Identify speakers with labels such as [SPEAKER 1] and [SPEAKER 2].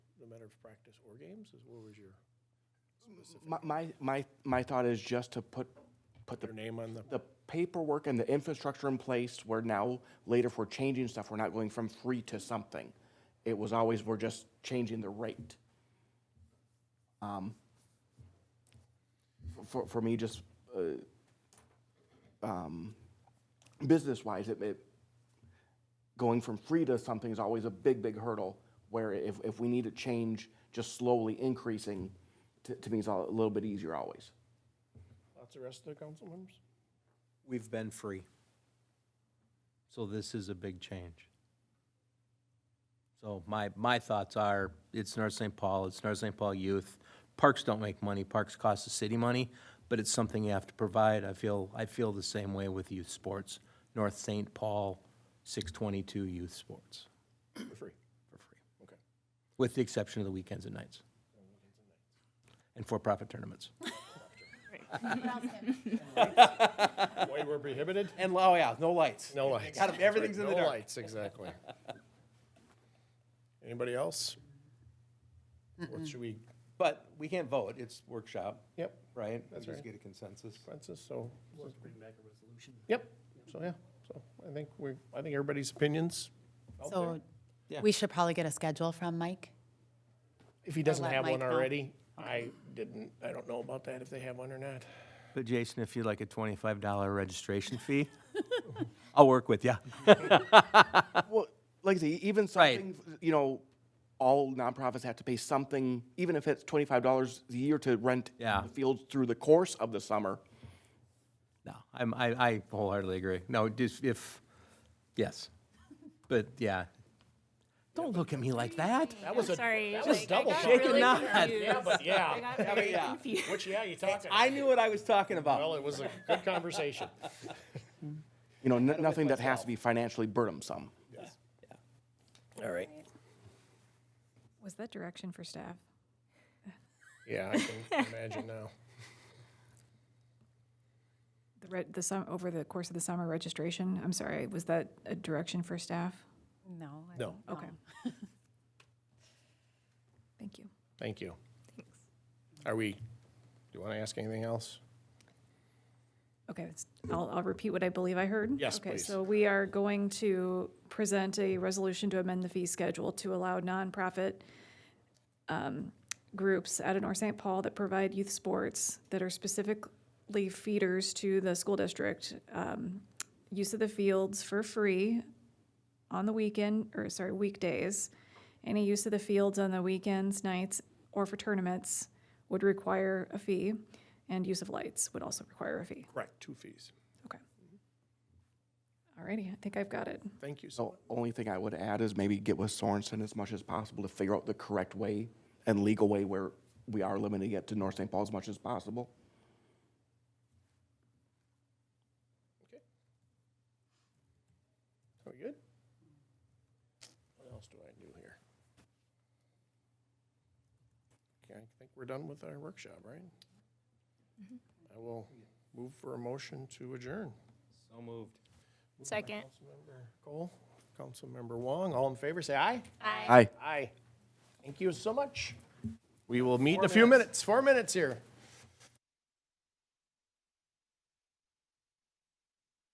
[SPEAKER 1] matter of practice or games? Is What was your specific,
[SPEAKER 2] My, my, my, my thought is just to put, put
[SPEAKER 1] their
[SPEAKER 2] the,
[SPEAKER 1] name on the,
[SPEAKER 2] the paperwork and the infrastructure in place where now, later if we're changing stuff, we're not going from free to something. It was always, we're just changing the rate. Um, For, for me, just, uh, um, business-wise, it, it, going from free to something is always a big, big hurdle, where if, if we need to change, just slowly increasing, to, to me is a little bit easier always.
[SPEAKER 1] lots of rest of the council members?
[SPEAKER 3] We've been free. So this is a big change. So my, my thoughts are, it's North St. Paul, it's North St. Paul youth. Parks don't make money, parks cost the city money, but it's something you have to provide. I feel, I feel the same way with youth sports. North St. Paul, six twenty-two youth sports
[SPEAKER 1] For free.
[SPEAKER 3] for free.
[SPEAKER 1] Okay.
[SPEAKER 3] With the exception of the weekends and nights. And for-profit tournaments.
[SPEAKER 1] Why we're prohibited?
[SPEAKER 3] And, oh yeah, no lights.
[SPEAKER 1] No lights.
[SPEAKER 3] Got 'em, everything's in the
[SPEAKER 1] No
[SPEAKER 3] dark.
[SPEAKER 1] lights, exactly. Anybody else? What should we,
[SPEAKER 3] But we can't vote, it's workshop,
[SPEAKER 1] yep,
[SPEAKER 3] right?
[SPEAKER 1] That's
[SPEAKER 3] We
[SPEAKER 1] right.
[SPEAKER 3] Just get a consensus.
[SPEAKER 1] consensus, so. Yep, so, yeah, so I think we, I think everybody's opinions out there.
[SPEAKER 4] So
[SPEAKER 3] Yeah.
[SPEAKER 4] we should probably get a schedule from Mike.
[SPEAKER 1] If he doesn't
[SPEAKER 4] let
[SPEAKER 1] have
[SPEAKER 4] Mike
[SPEAKER 1] one
[SPEAKER 4] know.
[SPEAKER 1] already, I didn't, I don't know about that, if they have one or not.
[SPEAKER 3] But Jason, if you'd like a twenty-five dollar registration fee, I'll work with you.
[SPEAKER 2] Well, like I say, even
[SPEAKER 3] Right.
[SPEAKER 2] something, you know, all nonprofits have to pay something, even if it's twenty-five dollars a year to rent
[SPEAKER 3] Yeah.
[SPEAKER 2] the fields through the course of the summer.
[SPEAKER 3] No, I'm, I, I wholeheartedly agree. No, just if, yes, but yeah. Don't look at me like that.
[SPEAKER 1] That was a,
[SPEAKER 5] Sorry.
[SPEAKER 1] that was
[SPEAKER 5] like, I
[SPEAKER 1] double
[SPEAKER 5] got
[SPEAKER 3] Shake and
[SPEAKER 5] really
[SPEAKER 3] nod.
[SPEAKER 5] confused.
[SPEAKER 1] yeah, but
[SPEAKER 5] I
[SPEAKER 1] yeah,
[SPEAKER 5] got very
[SPEAKER 3] yeah.
[SPEAKER 5] confused.
[SPEAKER 1] which, yeah, you talking.
[SPEAKER 3] I knew what I was talking
[SPEAKER 1] Well,
[SPEAKER 3] about.
[SPEAKER 1] it was a good conversation.
[SPEAKER 2] You know, n- nothing that has to be financially burdensome.
[SPEAKER 1] All right.
[SPEAKER 5] Was that direction for staff?
[SPEAKER 1] Yeah, I can imagine now.
[SPEAKER 5] The re- the sum, over the course of the summer registration, I'm sorry, was that a direction for staff?
[SPEAKER 4] No. I
[SPEAKER 1] No.
[SPEAKER 4] don't
[SPEAKER 5] Okay.
[SPEAKER 4] know.
[SPEAKER 5] Thank you.
[SPEAKER 1] Thank you. Are we, do you want to ask anything else?
[SPEAKER 5] Okay, it's- I'll, I'll repeat what I believe I heard.
[SPEAKER 1] Yes,
[SPEAKER 5] Okay,
[SPEAKER 1] please.
[SPEAKER 5] so we are going to present a resolution to amend the fee schedule to allow nonprofit um, groups out of North St. Paul that provide youth sports that are specifically feeders to the school district, um, use of the fields for free on the weekend, or sorry, weekdays. Any use of the fields on the weekends, nights, or for tournaments would require a fee, and use of lights would also require a fee.
[SPEAKER 1] Correct, two fees.
[SPEAKER 5] Okay. Alrighty, I think I've got it.
[SPEAKER 1] Thank you. so
[SPEAKER 2] So only thing I would add is maybe get with Sorensen as much as possible to figure out the correct way and legal way where we are limiting it to North St. Paul as much as possible.
[SPEAKER 1] Are we good? What else do I do here? Okay, I think we're done with our workshop, right? I will move for a motion to adjourn.
[SPEAKER 3] So moved.
[SPEAKER 5] Second.
[SPEAKER 1] Councilmember Cole, Councilmember Wong, all in favor, say aye.
[SPEAKER 2] Aye.
[SPEAKER 1] Aye. Thank you so much. We will meet in a few minutes, four minutes here.